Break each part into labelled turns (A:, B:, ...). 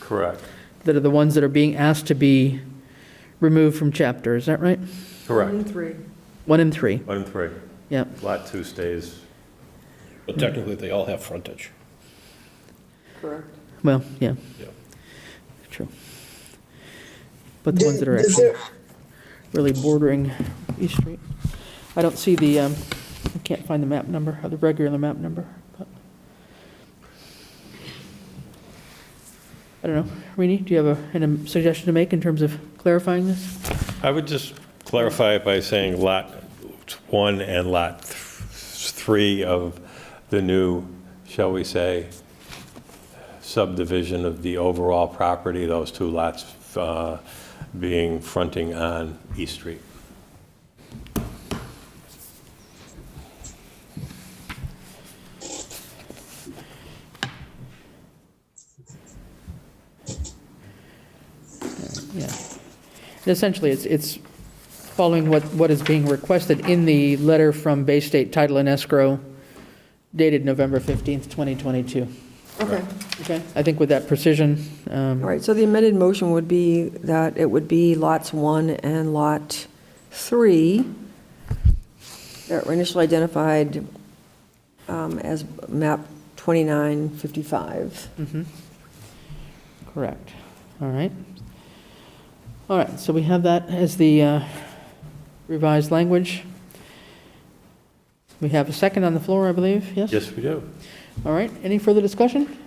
A: Correct,
B: that are the ones that are being asked to be removed from chapter, is that right?
A: correct.
C: Three.
B: One and three,
A: One and three.
B: yep.
A: Lot two stays.
D: But technically, they all have frontage.
C: Correct.
B: Well, yeah,
D: Yeah.
B: true. But the ones that are
E: Does- does
B: actually
E: there-
B: really bordering East Street. I don't see the, um, I can't find the map number, or the regular map number, but. I don't know. Rini, do you have a, an- a suggestion to make in terms of clarifying this?
D: I would just clarify it by saying Lot 1 and Lot th- 3 of the new, shall we say, subdivision of the overall property, those two lots uh, being fronting on East Street.
B: Yeah. Essentially, it's, it's following what, what is being requested in the letter from Bay State Title and Escrow dated November 15th, 2022.
C: Okay.
B: Okay, I think with that precision, um,
C: All right, so the amended motion would be that it would be lots one and lot three that were initially identified um, as map 2955.
B: mm-hmm. Correct. All right. All right, so we have that as the uh, revised language. We have a second on the floor, I believe, yes?
D: Yes, we do.
B: All right, any further discussion?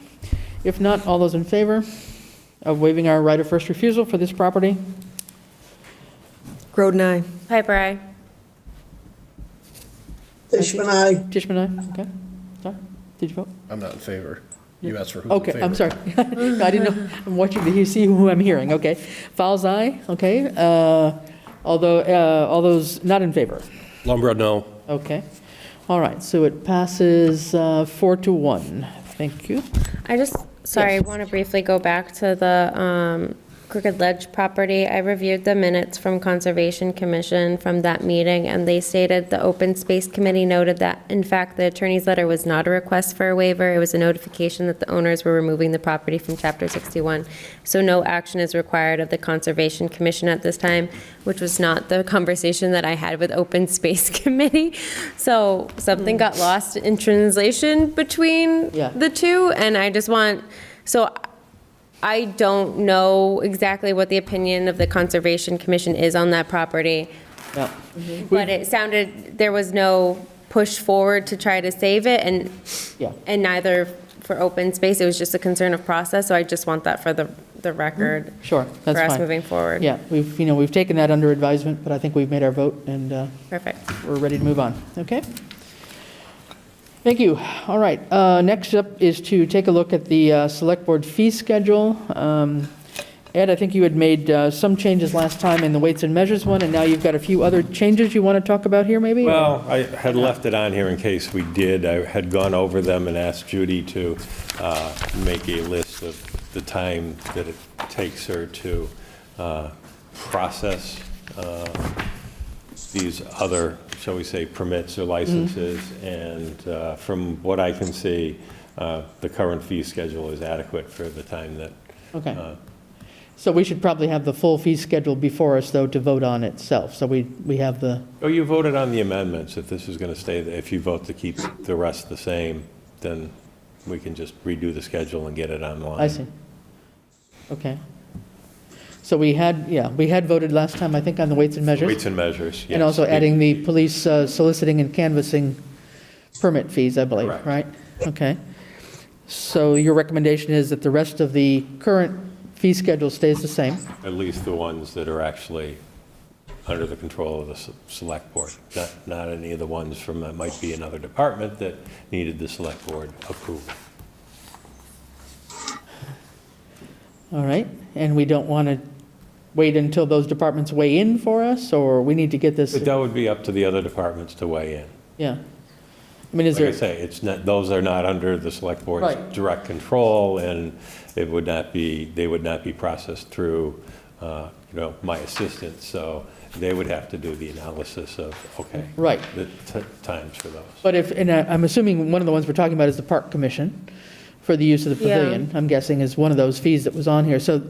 B: If not, all those in favor of waiving our right of first refusal for this property?
C: Groden, aye.
F: Piper, aye.
E: Fishman, aye.
B: Tishman, aye? Okay, sorry, did you vote?
G: I'm not in favor. You asked for who's in favor.
B: Okay, I'm sorry. No, I didn't know, I'm watching to see who I'm hearing, okay. Fowles, aye, okay. Uh, Although, uh, all those not in favor?
D: Lumbrough, no.
B: Okay. All right, so it passes uh, four to one. Thank you.
F: I just, sorry, I
B: Yes.
F: want to briefly go back to the um, Crooked Ledge property. I reviewed the minutes from Conservation Commission from that meeting, and they stated the Open Space Committee noted that, in fact, the attorney's letter was not a request for a waiver. It was a notification that the owners were removing the property from Chapter 61. So no action is required of the Conservation Commission at this time, which was not the conversation that I had with Open Space Committee. So something got lost in translation between
B: Hmm. Yeah.
F: the the two, and I just want, so I don't know exactly what the opinion of the Conservation Commission is on that property,
B: Yeah.
F: but it sounded, there was no push forward to try to save it, and,
B: Yeah.
F: and neither for open space, it was just a concern of process, so I just want that for the, the record.
B: Sure, that's
F: For us
B: fine.
F: moving forward.
B: Yeah, we've, you know, we've taken that under advisement, but I think we've made our vote, and uh,
F: Perfect.
B: we're ready to move on, okay? Thank you. All right, uh, next up is to take a look at the uh, Select Board fee schedule. Um, Ed, I think you had made uh, some changes last time in the weights and measures one, and now you've got a few other changes you want to talk about here, maybe?
D: Well, I had left it on here in case we did. I had gone over them and asked Judy to uh, make a list of the time that it takes her to uh, process uh, these other, shall we say, permits or licenses. And uh, from what I can see, uh, the current fee schedule is adequate for the time that
B: Okay.
D: uh,
B: So we should probably have the full fee schedule before us, though, to vote on itself. So we, we have the,
D: Oh, you voted on the amendments, if this is going to stay, if you vote to keep the rest the same, then we can just redo the schedule and get it online.
B: I see. Okay. So we had, yeah, we had voted last time, I think, on the weights and measures.
D: Weights and measures, yes.
B: And also adding the police uh, soliciting and canvassing permit fees, I believe,
D: Correct.
B: right? Okay. So your recommendation is that the rest of the current fee schedule stays the same?
D: At least the ones that are actually under the control of the s- select board, not, not any of the ones from, that might be another department that needed the select board approval.
B: All right, and we don't want to wait until those departments weigh in for us, or we need to get this,
D: But that would be up to the other departments to weigh in.
B: yeah? I mean, is
D: Like
B: there?
D: I say, it's not, those are not under the select board's
B: Right.
D: direct control, and it would not be, they would not be processed through, uh, you know, my assistant, so they would have to do the analysis of, okay.
B: Right.
D: The t- times for those.
B: But if, and I- I'm assuming one of the ones we're talking about is the Park Commission, for the use of the
F: Yeah.
B: pavilion, I'm guessing, is one of those fees that was on here. So